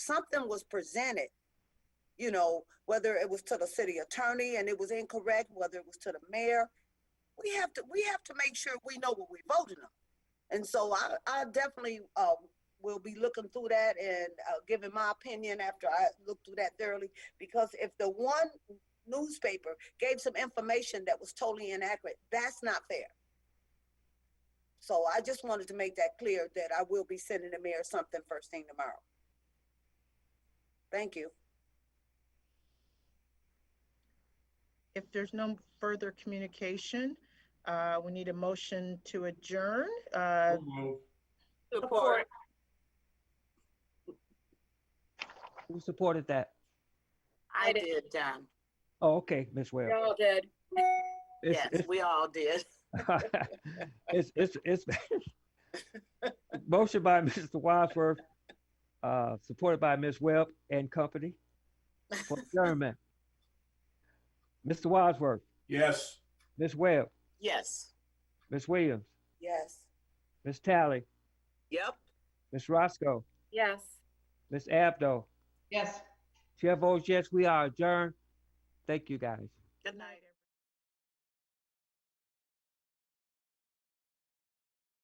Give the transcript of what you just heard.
something was presented, you know, whether it was to the city attorney and it was incorrect, whether it was to the mayor. We have to, we have to make sure we know what we're voting on. And so I, I definitely, uh, will be looking through that and, uh, giving my opinion after I look through that thoroughly. Because if the one newspaper gave some information that was totally inaccurate, that's not fair. So I just wanted to make that clear that I will be sending the mayor something first thing tomorrow. Thank you. If there's no further communication, uh, we need a motion to adjourn. Uh, So moved. Support. Who supported that? I did, John. Oh, okay, Ms. Webb. all did. It's- Yes, we all did. It's, it's, it's, it's- motion by Mr. Wadsworth, uh, supported by Ms. Webb and company. for adjournment. Mr. Wadsworth, Yes. Ms. Webb, Yes. Ms. Williams, Yes. Ms. Tally, Yep. Ms. Roscoe, Yes. Ms. Abdo. Yes. Chair votes yes, we are adjourned. Thank you, guys. Good night.